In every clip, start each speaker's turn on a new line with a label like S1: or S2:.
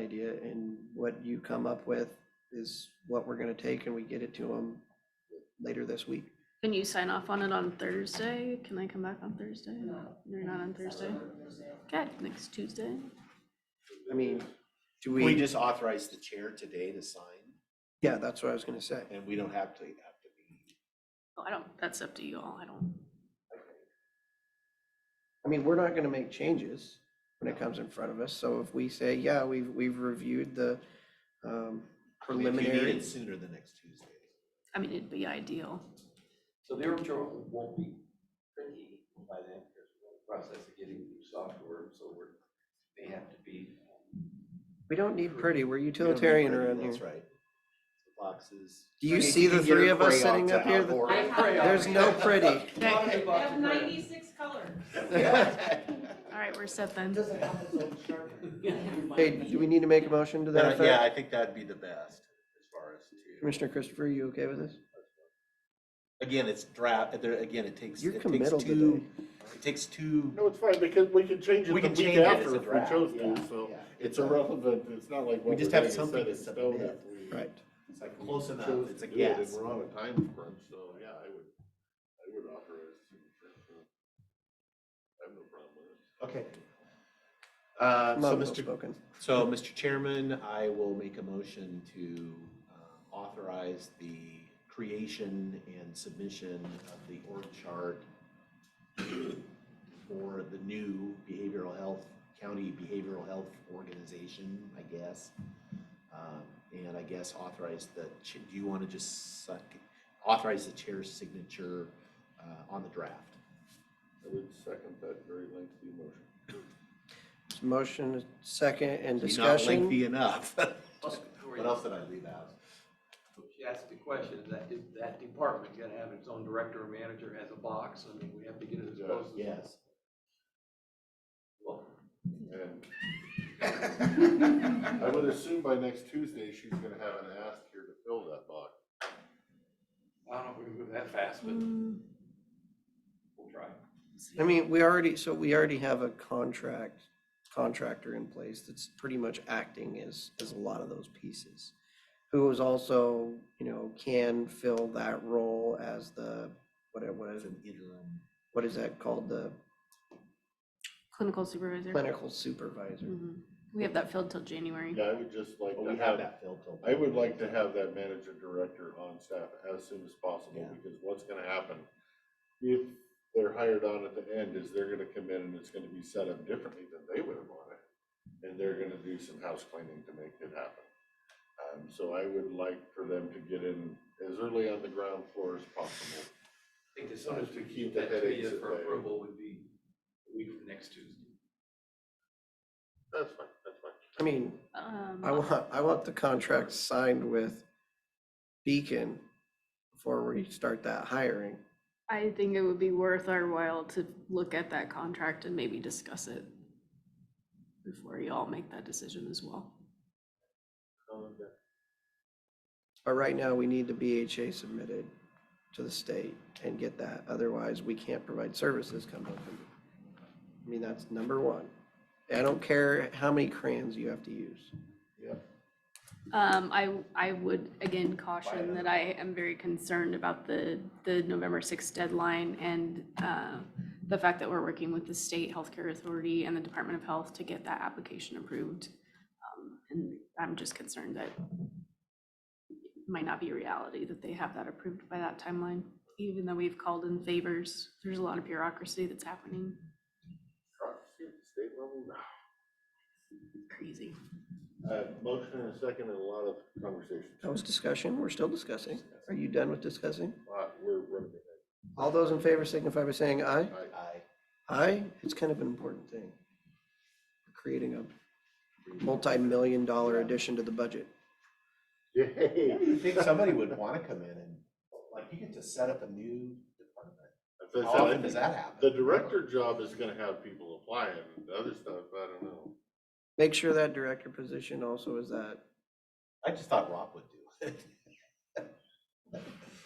S1: idea, and what you come up with is what we're gonna take, and we get it to them later this week.
S2: Can you sign off on it on Thursday? Can I come back on Thursday? You're not on Thursday? Okay, next Tuesday.
S1: I mean, do
S3: We
S1: we,
S3: just authorize the chair today to sign,
S1: yeah, that's what I was gonna say.
S3: and we don't have to, have to be.
S2: Oh, I don't, that's up to you all. I don't.
S1: I mean, we're not gonna make changes when it comes in front of us, so if we say, yeah, we've, we've reviewed the um,
S3: I mean, if you need
S1: preliminary.
S3: it Sooner than next Tuesday.
S2: I mean, it'd be ideal.
S4: So the Armtron won't be tricky by then, because we're in the process of getting new software, so we're, may have to be.
S1: We don't need pretty, we're
S3: We don't have
S1: utilitarian
S3: to-
S1: around
S3: That's
S1: here.
S3: right. The Boxes.
S1: Do you
S3: Hey,
S1: see the
S3: can get
S1: three
S3: a
S1: of us
S3: crayon
S1: sitting
S3: to
S1: up here that-
S3: outboard.
S5: I have-
S1: There's no pretty.
S5: I have ninety-six colors.
S2: All right, we're set then.
S1: Hey, do we need to make a motion to that
S3: That- Uh, Yeah,
S1: effect?
S3: I think that'd be the best as far as to,
S1: Commissioner Christopher, you okay with this?
S3: again, it's draft, there, again, it takes,
S1: You're
S3: it takes
S1: committal today.
S3: two, it takes two.
S6: No, it's fine, because we can change it
S3: We
S6: the
S3: can
S6: week
S3: change it as
S6: after
S3: a
S6: if we
S3: draft,
S6: chose
S3: yeah,
S6: to, so
S3: yeah.
S6: it's irrelevant, it's not like what we're
S3: just have
S6: gonna set
S3: something
S6: in
S3: to
S6: stone
S3: submit.
S6: after we
S1: Right.
S3: It's like close
S6: chose
S3: enough, it's a
S6: to do it,
S3: guess.
S6: And we're on a time crunch, so yeah, I would, I would authorize. I have no problem with it.
S3: Okay. Uh,
S1: I'm
S3: so
S1: not
S3: Mr.
S1: spoken.
S3: So, Mr. Chairman, I will make a motion to uh, authorize the creation and submission of the org chart for the new behavioral health, county behavioral health organization, I guess. Um, And I guess authorize the, ch- do you want to just suck, authorize the chair's signature uh, on the draft?
S6: I would second that very lengthy motion.
S1: Motion, second, and
S3: Be Not
S1: discussion.
S3: lengthy enough. What
S4: What
S3: else did I leave out?
S4: She asked the question, is that, is that department gonna have its own director or manager as a box? I mean, we have to get it as close as.
S3: Yes.
S4: Well,
S6: And I would assume by next Tuesday, she's gonna have an ask here to fill that box.
S4: I don't know if we can move that fast, but
S2: Mm,
S4: we'll try.
S1: I mean, we already, so we already have a contract, contractor in place that's pretty much acting as, as a lot of those pieces. Who is also, you know, can fill that role as the, what, what
S3: As
S1: is,
S3: an interim.
S1: what is that called? The
S2: Clinical supervisor.
S1: clinical supervisor.
S2: Mhm. We have that filled till January.
S6: Yeah, I would just like
S3: But Oh, we
S6: to
S3: have
S6: have,
S3: that filled till.
S6: I would like to have that manager director on staff as soon as possible,
S3: Yeah.
S6: because what's gonna happen? If they're hired on at the end, is they're gonna come in and it's gonna be set up differently than they would have wanted. And they're gonna do some house cleaning to make it happen. Um, so I would like for them to get in as early on the ground floor as possible.
S4: I think as soon as we
S6: Keep
S4: keep
S6: the
S4: that to be
S6: headaches at
S4: for
S6: bay.
S4: approval would be a week from next Tuesday.
S6: That's fine, that's fine.
S1: I mean,
S2: Um,
S1: I want, I want the contract signed with Beacon before we start that hiring.
S2: I think it would be worth our while to look at that contract and maybe discuss it before you all make that decision as well.
S1: But right now, we need the BHA submitted to the state and get that, otherwise we can't provide services come November. I mean, that's number one. I don't care how many crayons you have to use.
S2: Um, I, I would again caution that I am very concerned about the, the November sixth deadline and, uh, the fact that we're working with the state healthcare authority and the Department of Health to get that application approved. Um, And I'm just concerned that it might not be reality that they have that approved by that timeline, even though we've called in favors. There's a lot of bureaucracy that's happening.
S6: State level, no.
S2: Crazy.
S6: Uh, motion and a second and a lot of conversation.
S1: That was discussion, we're still discussing. Are you done with discussing?
S6: Uh, we're running it.
S1: All those in favor signify by saying aye.
S6: I-
S3: Aye.
S1: Aye, it's kind of an important thing. Creating a multi-million dollar addition to the budget.
S6: Yay.
S3: You think somebody would want to come in and, like, you get to set up a new department.
S6: As I said, I
S3: How often
S6: think
S3: does that happen?
S6: The director job is gonna have people applying, the other stuff, I don't know.
S1: Make sure that director position also is that
S3: I just thought Rob would do it.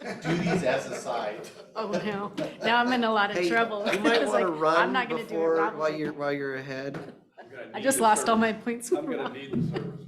S3: Duties as assigned.
S2: Oh, no. Now I'm in a lot of
S1: Hey,
S2: trouble.
S1: You
S2: I
S1: might
S2: was
S1: want to
S2: like, I'm
S1: run
S2: not gonna do it.
S1: before,
S2: Rob was
S1: while
S2: like,
S1: you're, while you're ahead.
S4: I'm gonna
S2: I
S4: need
S2: just
S4: the
S2: lost all
S4: service.
S2: my points.
S4: I'm gonna need the service.